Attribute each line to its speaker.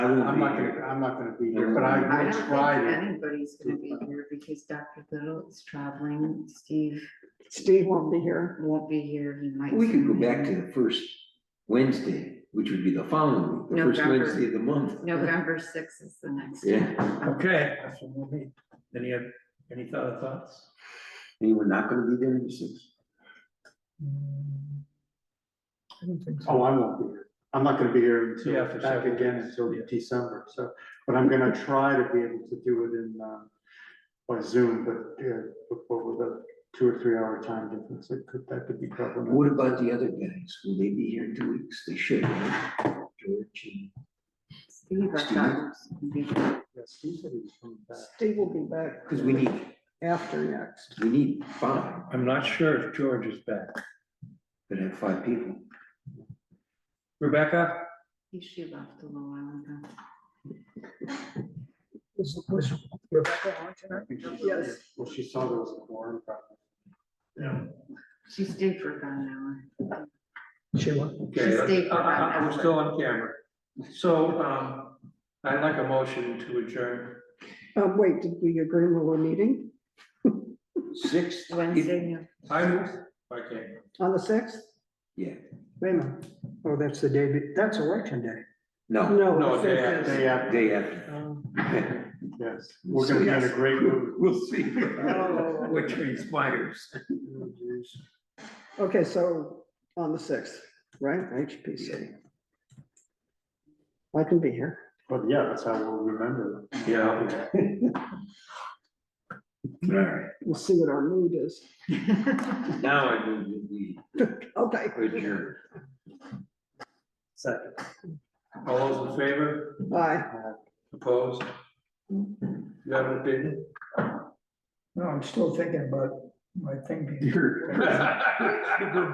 Speaker 1: won't
Speaker 2: I'm
Speaker 1: be
Speaker 2: not
Speaker 1: here.
Speaker 2: gonna, I'm not gonna be here, but I
Speaker 3: I
Speaker 2: will
Speaker 3: don't think
Speaker 2: try to.
Speaker 3: anybody's gonna be here because Dr. Little is traveling, Steve
Speaker 4: Steve won't be here.
Speaker 3: won't be here, he might.
Speaker 1: We could go
Speaker 3: zoom
Speaker 1: back to
Speaker 3: in.
Speaker 1: the first Wednesday, which would be the following, week, the first
Speaker 3: November.
Speaker 1: Wednesday of the month.
Speaker 3: November sixth is the next.
Speaker 1: Yeah,
Speaker 5: Okay, that's what we'll need. Any, oth- any other thoughts?
Speaker 1: anyone not gonna be there in the sixth?
Speaker 2: Oh, I won't be here. I'm not gonna be here
Speaker 5: Yeah,
Speaker 2: until,
Speaker 5: for
Speaker 2: back
Speaker 5: several
Speaker 2: again
Speaker 5: weeks,
Speaker 2: until
Speaker 5: yeah.
Speaker 2: December, so, but I'm gonna try to be able to do it in, um, by Zoom, but, uh, but with a two or three hour time difference, it could, that could be problematic.
Speaker 1: What about the other guys? Will they be here in two weeks? They should, right? George and.
Speaker 3: Steve, I thought. he was gonna be here.
Speaker 2: Yeah, Steve said he was coming back.
Speaker 4: Steve will be back
Speaker 1: Because we need,
Speaker 4: after next.
Speaker 1: we need five,
Speaker 5: I'm not sure if George is back.
Speaker 1: but have five people.
Speaker 5: Rebecca?
Speaker 3: He she left a little while ago.
Speaker 4: This is- this is Rebecca on tonight? Yes.
Speaker 2: Well, she saw there was a quorum problem.
Speaker 3: She stayed for about an
Speaker 4: She went.
Speaker 5: Okay,
Speaker 3: Steve,
Speaker 5: I- I- I'm still on camera. So, um, I'd like a motion to adjourn.
Speaker 4: Um, wait, did we agree we were meeting
Speaker 1: Six.
Speaker 3: hour. Wednesday, yeah.
Speaker 5: I move, okay,
Speaker 4: on the sixth?
Speaker 1: Yeah,
Speaker 6: Wait a minute. Oh, that's the day, be- that's election day.
Speaker 1: no,
Speaker 4: No.
Speaker 5: No,
Speaker 4: the
Speaker 5: day
Speaker 4: fifth
Speaker 5: after.
Speaker 4: is-
Speaker 2: Day after,
Speaker 1: day after.
Speaker 4: um,
Speaker 2: yes, we're gonna be in a great mood.
Speaker 1: We'll see.
Speaker 4: Oh.
Speaker 1: Which inspires.
Speaker 2: Oh, geez.
Speaker 4: Okay, so on the sixth, right? HPC. I can be here.
Speaker 2: But yeah, that's how we'll remember. them.
Speaker 5: yeah.
Speaker 1: All right,
Speaker 4: We'll see what our mood is.
Speaker 1: now I move that we
Speaker 4: Okay.
Speaker 1: adjourn.
Speaker 2: Second.
Speaker 5: All those in favor,
Speaker 4: Bye.
Speaker 5: opposed? You have an opinion?
Speaker 6: No, I'm still thinking about my thing. being-
Speaker 1: You're-